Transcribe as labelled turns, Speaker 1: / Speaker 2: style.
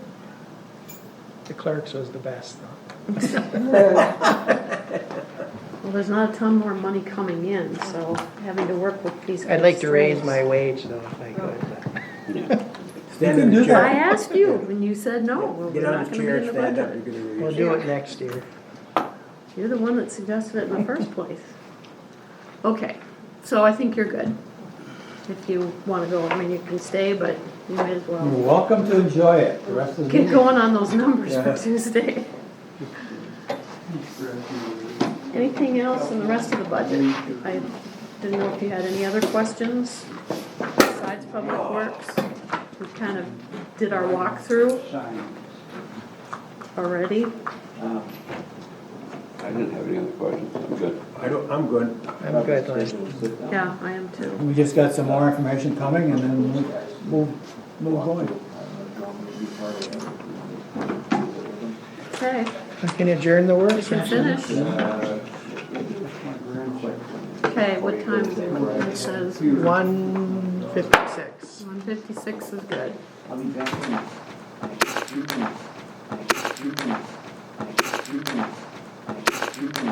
Speaker 1: the clerks was the best though.
Speaker 2: Well, there's not a ton more money coming in, so having to work with these.
Speaker 3: I'd like
Speaker 2: guys
Speaker 3: to raise
Speaker 2: is-
Speaker 3: my wage though, if I could.
Speaker 4: Stand
Speaker 1: You
Speaker 4: in
Speaker 1: can
Speaker 4: the
Speaker 1: do
Speaker 2: I
Speaker 4: chair.
Speaker 2: asked you when you said no, well, we're
Speaker 4: Get out
Speaker 2: not
Speaker 4: of the
Speaker 2: gonna be in
Speaker 4: chair,
Speaker 2: the
Speaker 4: stand up,
Speaker 2: budget.
Speaker 4: you're gonna raise.
Speaker 3: We'll do it next year.
Speaker 2: You're the one that suggested it in the first place. Okay, so I think you're good. If you wanna go, I mean, you can stay, but you may as
Speaker 4: You're
Speaker 2: well
Speaker 4: welcome to enjoy it, the rest of the
Speaker 2: get
Speaker 4: meeting.
Speaker 2: going on those numbers for
Speaker 4: Yeah.
Speaker 2: Tuesday. Anything else in the rest of the budget? I didn't know if you had any other questions besides public works. We kind of did our walkthrough already.
Speaker 5: I didn't have any other questions, I'm good.
Speaker 4: I don't, I'm good.
Speaker 3: I'm good, Lynn.
Speaker 2: Yeah, I am too.
Speaker 4: We just got some more information coming and then move, move, move on.
Speaker 2: Okay,
Speaker 3: I can adjourn the work
Speaker 2: we can
Speaker 3: session.
Speaker 2: finish. Okay, what time is it? It says
Speaker 3: One fifty-six.
Speaker 2: one fifty-six is good.
Speaker 6: I'll be back in.